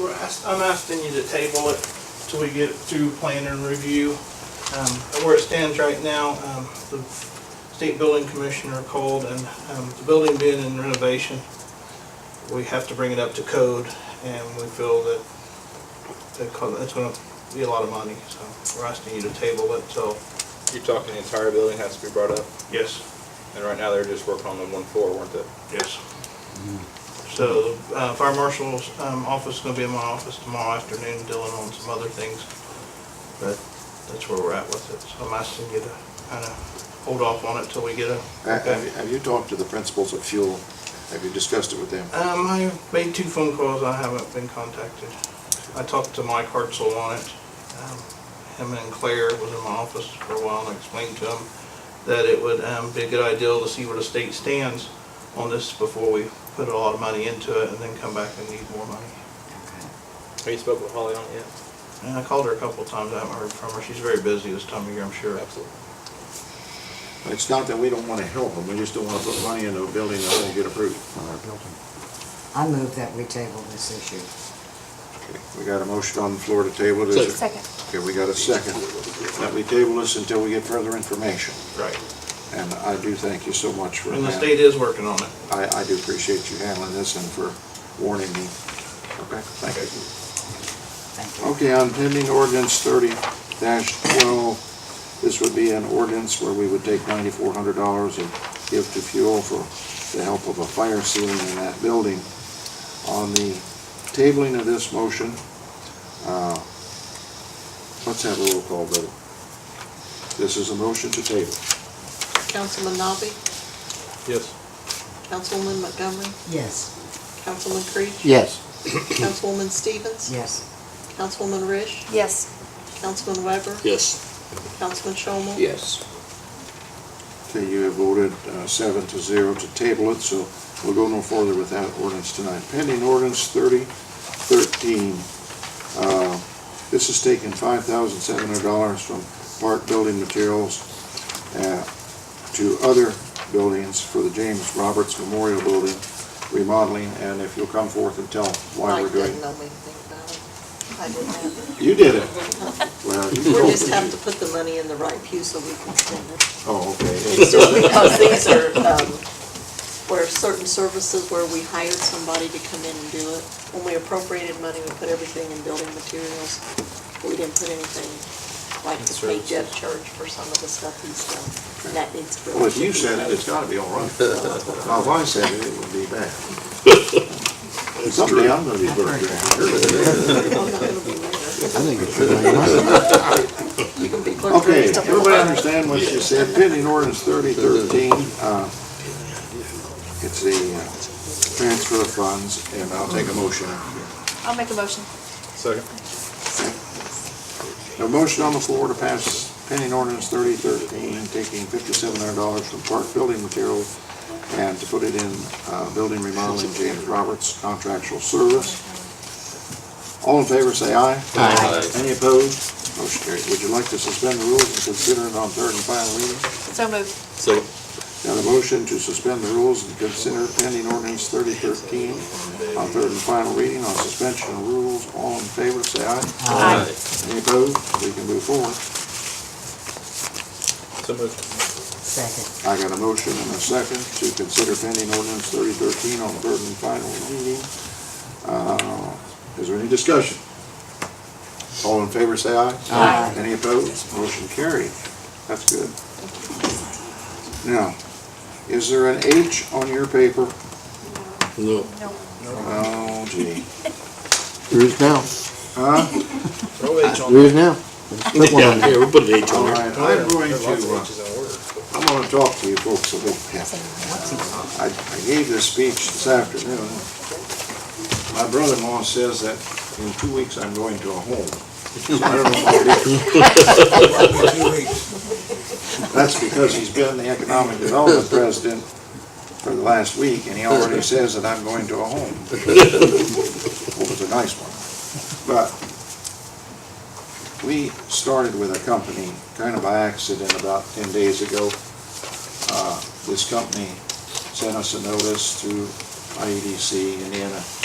we're asked, I'm asking you to table it till we get through plan and review. Um, Where it stands right now, um, the state building commissioner called and um, the building being in renovation, we have to bring it up to code and we feel that that co- that's gonna be a lot of money, so we're asking you to table it till. You're talking the entire building has to be brought up, Yes. and right now they're just working on the one floor, weren't they? Yes. So, uh, fire marshal's, um, office is gonna be in my office tomorrow afternoon dealing on some other things. But that's where we're at with it, so I'm asking you to kinda hold off on it till we get a. Uh, Have you- have you talked to the principals of fuel? Have you discussed it with them? Um, I made two phone calls, I haven't been contacted. I talked to Mike Hartzell on it. Um, Him and Claire was in my office for a while and I explained to him that it would, um, be a good idea to see where the state stands on this before we put a lot of money into it and then come back and need more money. Have you spoke with Holly on it yet? And I called her a couple of times, I haven't heard from her. She's very busy this time of year, I'm sure. Absolutely. It's not that we don't want to help them, we just don't want to put money into a building that won't get approved. I move that we table this issue. Okay, We got a motion on the floor to table it. Is there- Second. Okay, we got a second. That we table this until we get further information. Right. And I do thank you so much for And the that. state is working on it. I, I do appreciate you handling this and for warning me. Okay, thank you. Thank you. Okay, on pending ordinance thirty twelve, this would be an ordinance where we would take ninety-four hundred dollars and give to fuel for the help of a fire ceiling in that building. On the tabling of this motion, uh, let's have a roll call vote. This is a motion to table. Councilman Nobby, Yes. Councilwoman Montgomery, Yes, Councilman Creech, Yes. Councilwoman Stevens, yes, Councilwoman Rish, Yes, Councilman Weber, Yes. Councilman Shomel. Yes. Okay, you have voted uh, seven to zero to table it, so we'll go no further with that ordinance tonight. Pending ordinance thirty thirteen. uh, This is taking five thousand seven hundred dollars from park building materials uh, to other buildings for the James Roberts Memorial Building remodeling, and if you'll come forth and tell why we're Mike doing. didn't know anything about it. I didn't. You did it. Well, you We told just me have you- to put the money in the right pew so we can spend it. Oh, okay. It's just because these are, um, where certain services where we hired somebody to come in and do it. When we appropriated money, we put everything in building materials. We didn't put anything like the pay Jeff Church for some of the stuff he's done. And that needs. Well, if you said it, it's gotta be all right. Now, if I said it, it would be bad. Someday I'm gonna be burger. I'm not gonna be there. I think it's good. You can be clerk. Okay, everybody understand what you said, pending ordinance thirty thirteen, uh, it's the uh, transfer of funds, and I'll take a motion. I'll make a motion. Second. A motion on the floor to pass pending ordinance thirty thirteen, taking fifty-seven hundred dollars from park building materials and to put it in, uh, building remodeling James Roberts contractual service. All in favor, say aye. Aye. Any opposed? Motion carried. Would you like to suspend the rules and consider it on third and final reading? So moved. Second. Got a motion to suspend the rules and consider pending ordinance thirty thirteen on third and final reading on suspension of rules. All in favor, say aye. Aye. Any opposed? We can move forward. So moved. second, I got a motion and a second to consider pending ordinance thirty thirteen on third and final reading. Uh, Is there any discussion? All in favor, say aye. Aye. Any opposed? Motion carried. That's good. Now, is there an H on your paper? No. No. Oh gee. There is now. Huh? No H on There is now. Flip one on Yeah, there. we'll put an H All on right, there. I'm going There's lots of to, uh, H's in order. I'm gonna talk to you folks a little bit. I, I gave this speech this afternoon. My brother-in-law says that in two weeks I'm going to a home. So I don't know if I'll be- That's because he's been the economic development president for the last week, and he already says that I'm going to a home. Well, it's a nice one. But we started with a company kind of by accident about ten days ago. Uh, This company sent us a notice through IEDC, E Indiana